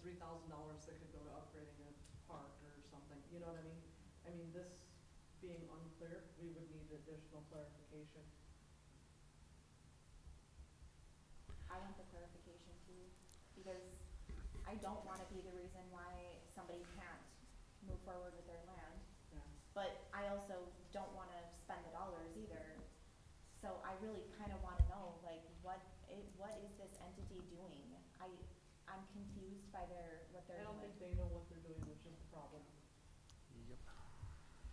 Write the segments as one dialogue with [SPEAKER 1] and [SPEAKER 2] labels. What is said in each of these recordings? [SPEAKER 1] three thousand dollars that could go to upgrading a park or something, you know what I mean? I mean, this being unclear, we would need additional clarification.
[SPEAKER 2] I want the clarification too, because I don't wanna be the reason why somebody can't move forward with their land,
[SPEAKER 1] Yeah.
[SPEAKER 2] but I also don't wanna spend the dollars either. So I really kinda wanna know, like, what i- what is this entity doing? I, I'm confused by their, what they're
[SPEAKER 1] I don't
[SPEAKER 2] doing.
[SPEAKER 1] think they know what they're doing, which is the problem.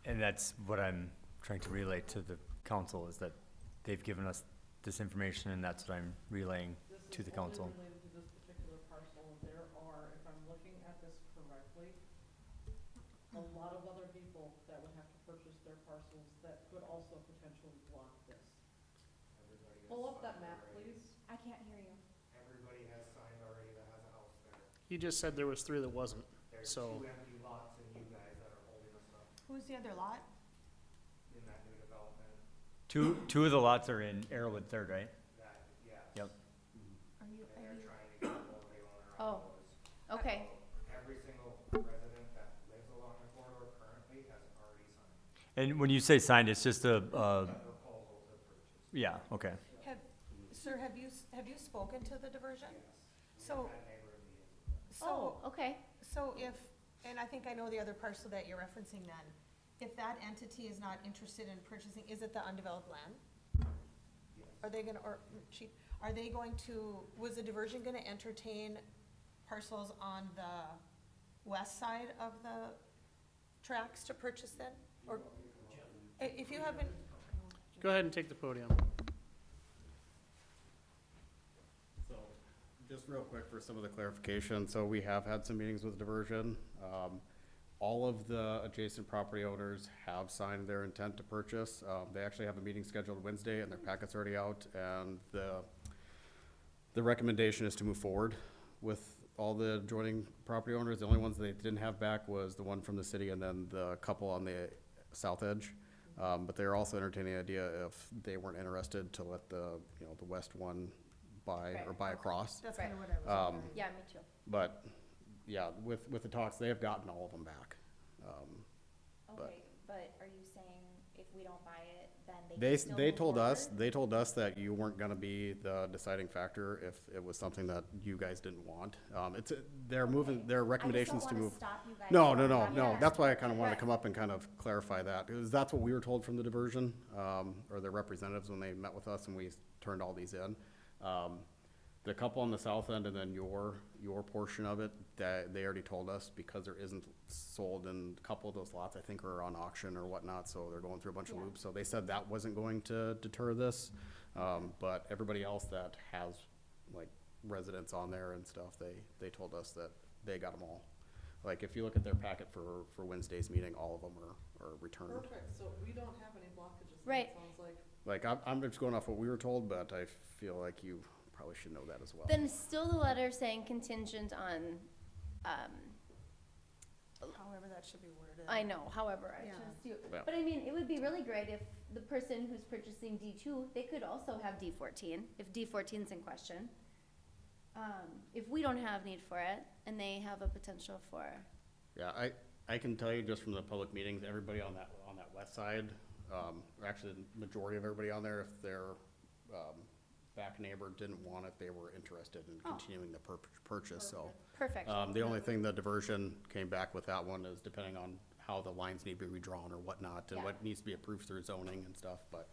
[SPEAKER 3] And that's what I'm trying to relay to the council, is that they've given us this information, and that's what I'm relaying.
[SPEAKER 1] This
[SPEAKER 3] To
[SPEAKER 1] is only
[SPEAKER 3] the council.
[SPEAKER 1] Related to this particular parcel, and there are, if I'm looking at this correctly, a lot of other people that would have to purchase their parcels that could also potentially block this.
[SPEAKER 4] Everybody has
[SPEAKER 1] Pull up that
[SPEAKER 4] signed
[SPEAKER 1] map,
[SPEAKER 4] already.
[SPEAKER 1] please.
[SPEAKER 2] I can't hear you.
[SPEAKER 4] Everybody has signed already that has a house there.
[SPEAKER 5] You just said there was three that wasn't.
[SPEAKER 4] There's
[SPEAKER 5] So-
[SPEAKER 4] two empty lots in you guys that are holding us up
[SPEAKER 6] Who's the other lot?
[SPEAKER 4] in that new development
[SPEAKER 3] Two, two of the lots are in Arrowwood Third, right?
[SPEAKER 4] that, yeah.
[SPEAKER 3] Yep.
[SPEAKER 6] Are you,
[SPEAKER 4] And
[SPEAKER 6] are
[SPEAKER 4] they're
[SPEAKER 6] you,
[SPEAKER 4] trying to get all the owner
[SPEAKER 2] Oh,
[SPEAKER 4] on those.
[SPEAKER 2] Okay,
[SPEAKER 4] So Every single resident that lives along the corridor currently has already signed
[SPEAKER 3] And when you say signed, it's just a, uh,
[SPEAKER 4] a proposal to purchase.
[SPEAKER 3] yeah, okay.
[SPEAKER 6] have, sir, have you, s- have you spoken to the diversion?
[SPEAKER 4] Yes.
[SPEAKER 6] So-
[SPEAKER 4] We had neighbor meetings.
[SPEAKER 2] oh,
[SPEAKER 6] So,
[SPEAKER 2] okay,
[SPEAKER 6] so if, and I think I know the other parcel that you're referencing then, if that entity is not interested in purchasing, is it the undeveloped land? Are they gonna, or, mm, chief, are they going to, was the diversion gonna entertain parcels on the west side of the tracks to purchase then? Or, i- if you haven't,
[SPEAKER 5] Go ahead and take the podium.
[SPEAKER 7] So, just real quick for some of the clarification, so we have had some meetings with diversion. Um, all of the adjacent property owners have signed their intent to purchase. Um, they actually have a meeting scheduled Wednesday and their packet's already out and the, the recommendation is to move forward with all the adjoining property owners. The only ones they didn't have back was the one from the city and then the couple on the south edge. Um, but they're also entertaining the idea if they weren't interested to let the, you know, the west one buy or
[SPEAKER 2] Right,
[SPEAKER 7] buy across.
[SPEAKER 6] that's kinda what I was. wondering.
[SPEAKER 2] yeah, me too.
[SPEAKER 7] But, yeah, with, with the talks, they have gotten all of them back. Um, but-
[SPEAKER 2] Okay, but are you saying if we don't buy it, then they
[SPEAKER 7] They,
[SPEAKER 2] can
[SPEAKER 7] s-
[SPEAKER 2] still
[SPEAKER 7] they
[SPEAKER 2] move
[SPEAKER 7] told us,
[SPEAKER 2] forward?
[SPEAKER 7] they told us that you weren't gonna be the deciding factor if it was something that you guys didn't want. Um, it's, a- they're moving,
[SPEAKER 2] Okay. I
[SPEAKER 7] their
[SPEAKER 2] just don't
[SPEAKER 7] recommendations to
[SPEAKER 2] wanna
[SPEAKER 7] move.
[SPEAKER 2] stop you guys
[SPEAKER 7] No,
[SPEAKER 2] from
[SPEAKER 7] no, no,
[SPEAKER 2] coming
[SPEAKER 7] no,
[SPEAKER 2] back.
[SPEAKER 7] that's why I kinda wanted to
[SPEAKER 2] Right.
[SPEAKER 7] come up and kind of clarify that, because that's what we were told from the diversion, um, or their representatives when they met with us and we s- turned all these in. Um, the couple on the south end and then your, your portion of it, that, they already told us, because there isn't sold and a couple of those lots, I think, are on auction or whatnot, so they're going through a bunch of
[SPEAKER 2] Yeah.
[SPEAKER 7] loops, so they said that wasn't going to deter this. Um, but everybody else that has, like, residents on there and stuff, they, they told us that they got them all. Like, if you look at their packet for, for Wednesday's meeting, all of them are, are returned.
[SPEAKER 1] Perfect, so we don't have any blockages, then,
[SPEAKER 2] Right.
[SPEAKER 1] it sounds like.
[SPEAKER 7] Like, I'm, I'm just going off what we were told, but I feel like you probably should know that as well.
[SPEAKER 8] Then still the letter saying contingent on, um,
[SPEAKER 6] However, that should be worded.
[SPEAKER 8] I know, however, I
[SPEAKER 6] Yeah.
[SPEAKER 8] just do.
[SPEAKER 7] Yeah.
[SPEAKER 8] But I mean, it would be really great if the person who's purchasing D two, they could also have D fourteen, if D 14 is in question. Um, if we don't have need for it, and they have a potential for,
[SPEAKER 7] Yeah, I, I can tell you just from the public meetings, everybody on that, on that west side, um, or actually the majority of everybody on there, if their, um, back neighbor didn't want it, they were interested in continuing the pur- purchase, so.
[SPEAKER 8] Oh. perfect,
[SPEAKER 7] Um, the only thing the diversion came back with that one is depending on how the lines need to be redrawn or whatnot, and
[SPEAKER 8] Yeah.
[SPEAKER 7] what needs to be approved through zoning and stuff, but,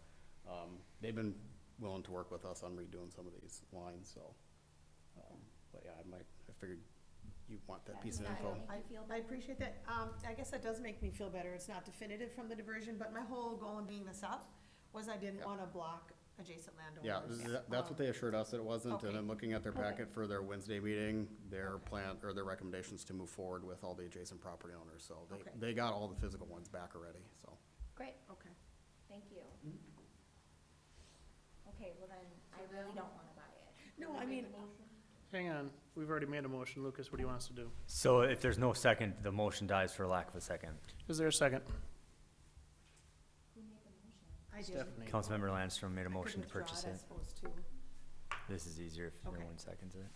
[SPEAKER 7] um, they've been willing to work with us on redoing some of these lines, so. um, But yeah, I might, I figured you want that piece of
[SPEAKER 2] Yeah, I
[SPEAKER 7] info.
[SPEAKER 2] don't
[SPEAKER 6] I,
[SPEAKER 2] think you feel
[SPEAKER 6] I
[SPEAKER 2] better.
[SPEAKER 6] appreciate that. Um, I guess that does make me feel better. It's not definitive from the diversion, but my whole goal in being this up was I didn't
[SPEAKER 7] Yeah.
[SPEAKER 6] wanna block adjacent
[SPEAKER 7] Yeah,
[SPEAKER 6] landowners.
[SPEAKER 7] th- that's what they assured us it wasn't, and
[SPEAKER 6] Okay.
[SPEAKER 7] then looking at their packet for their Wednesday meeting, their plan, or their recommendations to move forward with all the adjacent property owners, so they,
[SPEAKER 6] Okay.
[SPEAKER 7] they got all the physical ones back already, so.
[SPEAKER 8] great,
[SPEAKER 6] Okay.
[SPEAKER 2] Thank you. Okay, well then, I really don't wanna buy it.
[SPEAKER 6] Mm-hmm. No, I mean,
[SPEAKER 5] Hang on, we've already made a motion. Lucas, what do you want us to do?
[SPEAKER 3] So if there's no second, the motion dies for lack of a second.
[SPEAKER 5] Is there a second?
[SPEAKER 2] Who made the motion?
[SPEAKER 6] I did.
[SPEAKER 5] Stephanie.
[SPEAKER 3] Councilmember Landstrom made a
[SPEAKER 6] I could
[SPEAKER 3] motion to
[SPEAKER 6] withdraw it,
[SPEAKER 3] purchase
[SPEAKER 6] I
[SPEAKER 3] it.
[SPEAKER 6] suppose, too.
[SPEAKER 3] This is easier if no
[SPEAKER 6] Okay.
[SPEAKER 3] one seconds it.